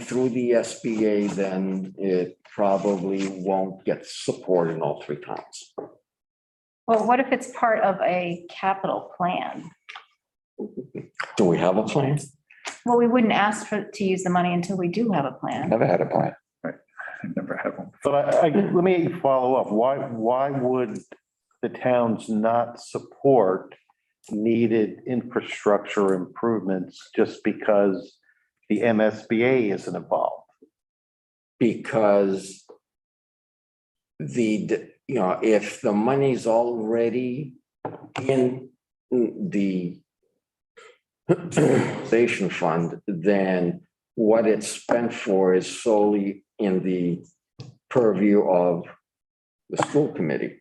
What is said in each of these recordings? through the SBA, then it probably won't get support in all three towns. Well, what if it's part of a capital plan? Do we have a plan? Well, we wouldn't ask for, to use the money until we do have a plan. Never had a plan. I've never had one. But I, I, let me follow up. Why, why would the towns not support needed infrastructure improvements just because the MSBA isn't involved? Because the, d- you know, if the money's already in the station fund, then what it's spent for is solely in the purview of the school committee.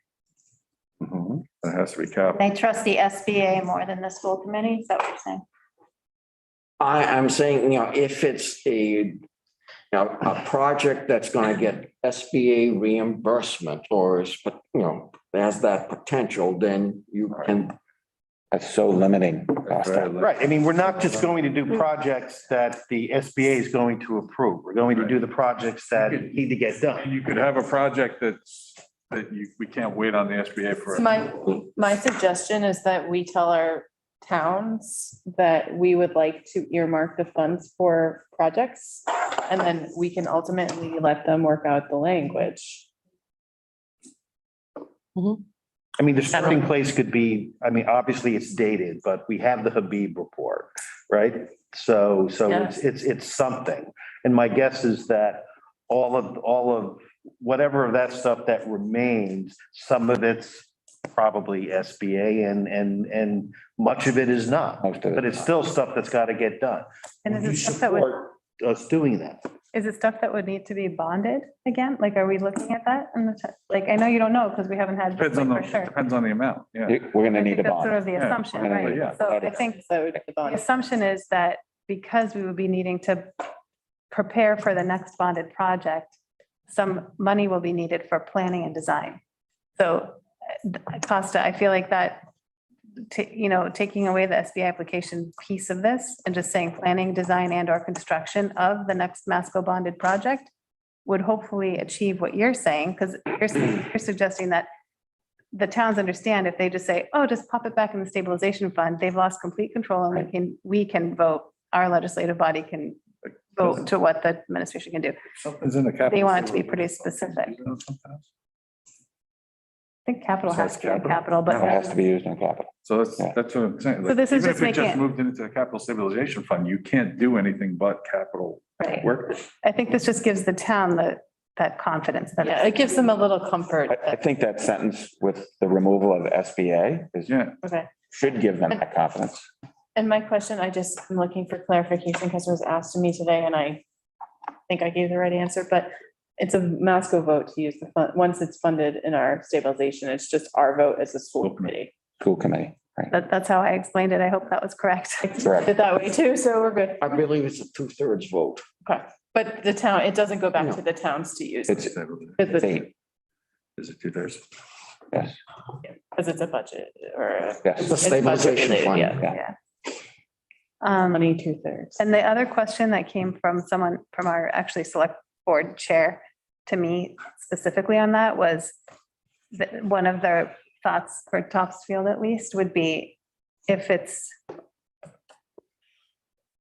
It has to be capped. They trust the SBA more than the school committee, is that what you're saying? I, I'm saying, you know, if it's a, you know, a project that's gonna get SBA reimbursement or is, but, you know, has that potential, then you can, That's so limiting. Costa. Right, I mean, we're not just going to do projects that the SBA is going to approve. We're going to do the projects that need to get done. And you could have a project that's, that you, we can't wait on the SBA for. So my, my suggestion is that we tell our towns that we would like to earmark the funds for projects. And then we can ultimately let them work out the language. I mean, the starting place could be, I mean, obviously it's dated, but we have the Habib report, right? So, so it's, it's, it's something. And my guess is that all of, all of, whatever of that stuff that remains, some of it's probably SBA and, and, and much of it is not. Most of But it. it's still stuff that's got to get done. And is You it stuff that would, support Us doing that. is it stuff that would need to be bonded again? Like, are we looking at that? in the t- Like, I know you don't know because we haven't had. Depends on for the, sure. depends on the amount, yeah. You- We're gonna I need think a That's sort bond. of the Yeah, assumption, yeah, yeah. right? So I think So it's the the bond. assumption is that because we would be needing to prepare for the next bonded project, some money will be needed for planning and design. So uh, Costa, I feel like that, ta- you know, taking away the SBA application piece of this and just saying planning, design and or construction of the next Masco bonded project would hopefully achieve what you're saying, because you're, you're suggesting that the towns understand if they just say, oh, just pop it back in the stabilization fund, they've lost complete control and we can, we can vote, our legislative body can vote to what the administration can do. I Something's in the capital. They want it to be pretty specific. think capital Besides has to be a capital. capital, It has but to be used in capital. So that's, Yeah. that's what I'm saying. So like, this is even just if it making it- Moved into the capital stabilization fund, you can't do anything but capital right. work. I think this just gives the town the, that confidence that. Yeah, it gives them a little comfort. I, I think that sentence with the removal of SBA is, Yeah, Okay. should give them that confidence. And my question, I just am looking for clarification because it was asked to me today and I think I gave the right answer, but it's a Masco vote to use the fund, once it's funded in our stabilization, it's just our vote as a school committee. School committee, That, that's how I explained it. I hope that was correct. correct? Did that way too, so we're good. I believe it's a two-thirds vote. Okay, but the town, it doesn't go back to the towns to use. It's Because eight, is it two thirds? yes, because it's a budget or uh, a- It's a yes. budget stabilization related, fund. yeah. Um, money two thirds. And the other question that came from someone from our actually select board chair to me specifically on that was that one of their thoughts for Topsfield at least would be if it's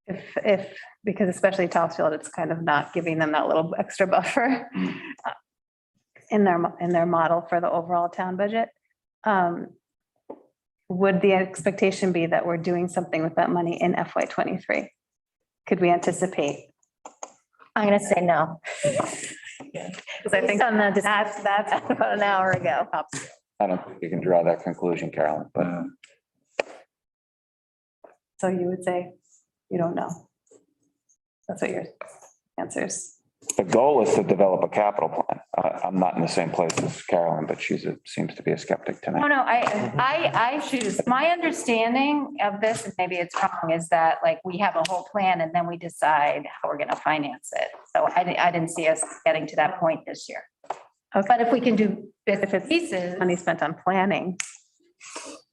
if, if, because especially Topsfield, it's kind of not giving them that little extra buffer uh, in their, mo- in their model for the overall town budget. Um, Would the expectation be that we're doing something with that money in FY twenty-three? Could we anticipate? I'm gonna say no. Because I think on the that's, that's about an hour ago. I don't think you can draw that conclusion, Carolyn, but Uh, So you would say, you don't know. That's what your answers. the goal is to develop a capital plan. I, I'm not in the same place as Carolyn, but she's, a- seems to be a skeptic Oh, tonight. no, I, I, I choose, my understanding of this, and maybe it's wrong, is that like we have a whole plan and then we decide how we're gonna finance it. So I, di- I didn't see us getting to that point this year. Okay. But if we can do bits and pieces, Money spent on planning.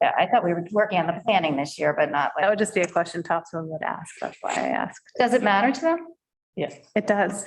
yeah, I thought we were working on the planning this year, but not That like, would just be a question Topsfield would ask. That's why I asked. does it matter to them? Yes. It does.